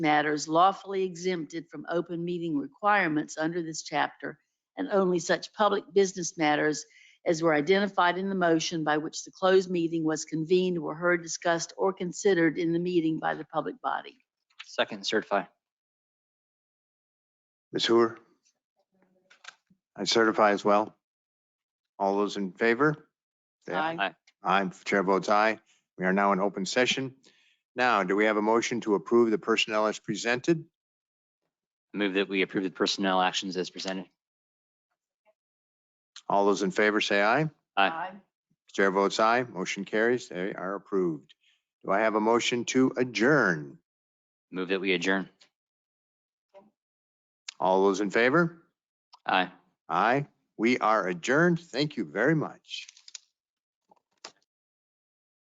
matters lawfully exempted from open meeting requirements under this chapter and only such public business matters as were identified in the motion by which the closed meeting was convened were heard, discussed, or considered in the meeting by the public body. Second and certify. Ms. Hooer? I certify as well. All those in favor? Say Aye. Aye. Aye, chair votes aye. We are now in open session. Now, do we have a motion to approve the personnel as presented? Move that we approve the personnel actions as presented. All those in favor say aye. Aye. Chair votes aye. Motion carries. They are approved. Do I have a motion to adjourn? Move that we adjourn. All those in favor? Aye. Aye. We are adjourned. Thank you very much.